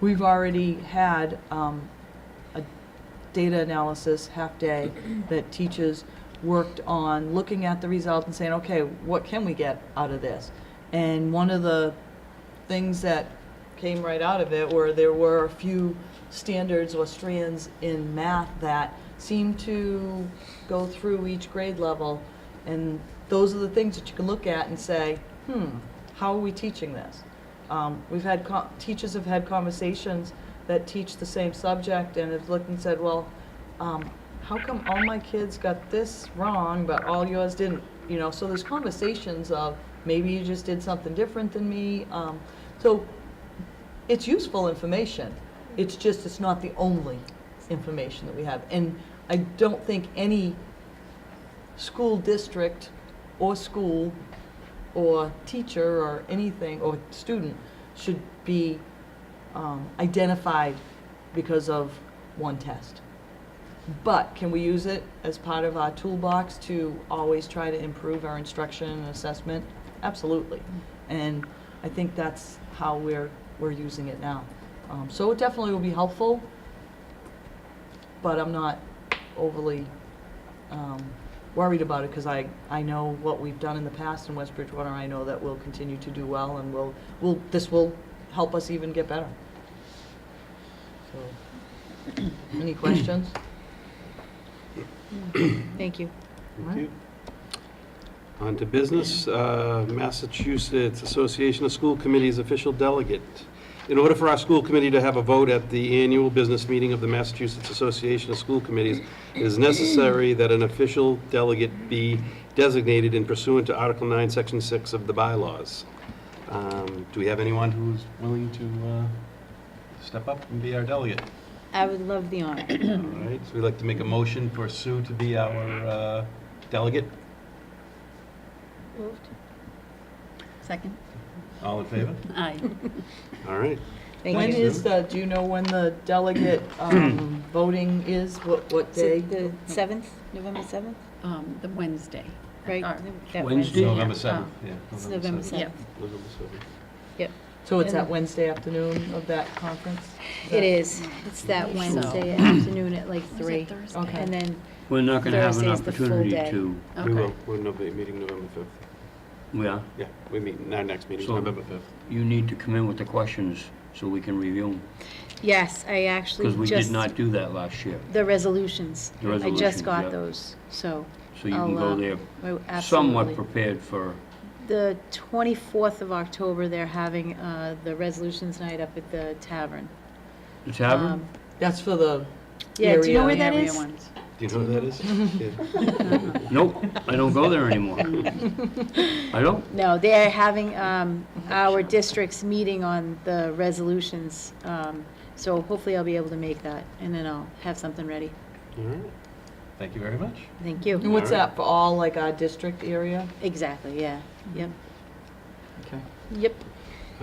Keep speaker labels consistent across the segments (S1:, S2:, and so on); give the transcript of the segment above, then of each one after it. S1: We've already had um, a data analysis half-day that teachers worked on looking at the result and saying, okay, what can we get out of this? And one of the things that came right out of it were there were a few standards or strands in math that seemed to go through each grade level. And those are the things that you can look at and say, hmm, how are we teaching this? Um, we've had, co- teachers have had conversations that teach the same subject and have looked and said, well, um, how come all my kids got this wrong, but all yours didn't? You know, so there's conversations of, maybe you just did something different than me. Um, so it's useful information. It's just, it's not the only information that we have. And I don't think any school district or school or teacher or anything, or student, should be um, identified because of one test. But can we use it as part of our toolbox to always try to improve our instruction and assessment? Absolutely. And I think that's how we're, we're using it now. Um, So it definitely will be helpful, but I'm not overly um, worried about it because I, I know what we've done in the past in West Bridgewater. I know that we'll continue to do well and we'll, will this will help us even get better. So, Any questions?
S2: Thank you.
S1: Right.
S3: On to business, uh, Massachusetts Association of School Committees official delegate. In order for our school committee to have a vote at the annual business meeting of the Massachusetts Association of School Committees, it is necessary that an official delegate be designated in pursuant to Article 9, Section 6 of the bylaws. Um, Do we have anyone who's willing to uh, step up and be our delegate?
S2: I would love the honor.
S3: All right, so we'd like to make a motion for Sue to be our uh, delegate.
S2: Moved. Second.
S3: All in favor?
S2: Aye.
S3: All right.
S1: When
S2: Thank you.
S1: is the, do you know when the delegate um, voting is, what, what
S2: Is
S1: day?
S2: it The seventh, November seventh,
S4: Um, the Wednesday.
S2: right?
S4: Or-
S2: That
S5: Wednesday?
S3: November
S4: Yeah.
S3: 7th, yeah.
S2: Oh. It's November
S4: Yep.
S2: seventh.
S3: November 7th.
S1: So it's that Wednesday afternoon of that conference?
S2: It is. It's that
S4: So-
S2: Wednesday afternoon at like
S4: Or is
S2: three.
S4: it Thursday?
S1: Okay.
S2: And then,
S5: We're not going to have an
S2: Thursday is the full
S5: opportunity
S2: day.
S5: to,
S3: We will,
S4: Okay.
S3: we're Nov- meeting November 5th.
S5: we are,
S3: Yeah, we meet, our next meeting is
S5: So-
S3: November 5th.
S5: you need to come in with the questions so we can review them.
S2: yes, I actually
S5: Because
S2: just.
S5: we did not do that last year.
S2: The resolutions.
S5: The
S2: I just
S5: resolutions,
S2: got
S5: yep.
S2: those, so.
S5: So you
S2: I'll,
S5: can
S2: uh,
S5: go there
S2: I-
S5: somewhat
S2: absolutely.
S5: prepared for,
S2: The 24th of October, they're having uh, the resolutions night up at the tavern.
S5: the tavern?
S2: Um,
S1: That's for the
S2: Yeah, do you
S1: area.
S2: know where that
S4: Area
S2: is?
S4: ones.
S3: Do you know who that is? Yeah.
S5: Nope, I don't go there anymore. I don't.
S2: No, they are having um,
S3: Mm-hmm.
S2: our district's meeting on the resolutions, um, so hopefully I'll be able to make that, and then I'll have something ready.
S3: All right. Thank you very much.
S2: Thank
S1: And
S3: Mm-hmm.
S2: you.
S1: what's that, for all, like, our district area?
S2: Exactly, yeah,
S3: Mm-hmm.
S2: yep,
S1: Okay.
S2: yep.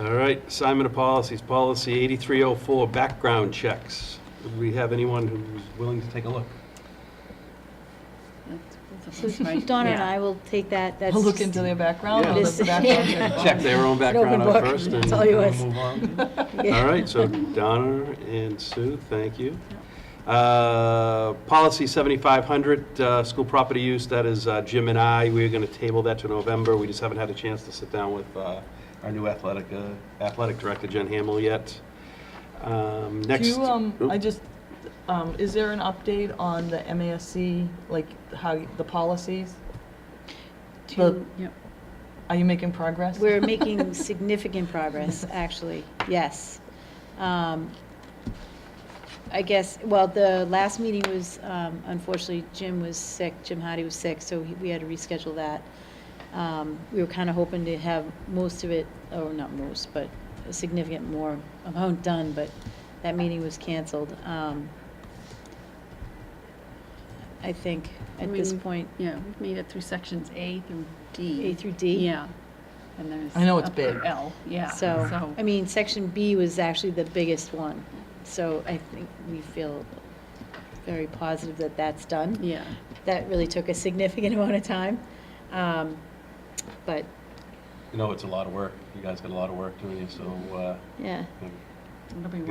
S3: All right, assignment of policies, policy 8304, background checks. Do we have anyone who's willing to take a look?
S4: That's both of us,
S2: So
S4: right?
S2: Donna and
S4: Yeah.
S2: I will take that, that's.
S1: We'll look into their background,
S3: Yeah.
S1: all the background check.
S3: Check their own
S2: an open
S3: background out
S2: book.
S3: first and
S2: It's all
S3: we'll
S2: yours.
S3: move on.
S2: Yeah.
S3: All right, so Donna and Sue, thank you. Uh, Policy 7500, uh, school property use, that is uh, Jim and I, we're going to table that to November. We just haven't had a chance to sit down with uh, our new athletic, uh, athletic director, Jen Hamill, yet. Um,
S1: Do
S3: Next.
S1: you, um,
S3: Oop.
S1: I just, um, is there an update on the MASC, like, how, the policies?
S2: To-
S4: Yep.
S1: Are you making progress?
S2: We're making significant progress, actually, yes. Um, I guess, well, the last meeting was, um, unfortunately, Jim was sick, Jim Hardy was sick, so he- we had to reschedule that. Um, We were kind of hoping to have most of it, or not most, but a significant more amount done, but that meeting was canceled. Um, I think, at this
S4: Meeting-
S2: point,
S4: Yeah, we've made it through sections A through D.
S2: A through D.
S4: Yeah. And there's.
S1: I know it's
S4: up through
S1: big.
S4: L, yeah.
S2: So, I mean, section B was actually the biggest one, so I think we feel very positive that that's done.
S4: Yeah.
S2: That really took a significant amount of time, um, but,
S3: You know, it's a lot of work. You guys got a lot of work doing, so uh,
S2: yeah.
S3: um,
S4: It'll be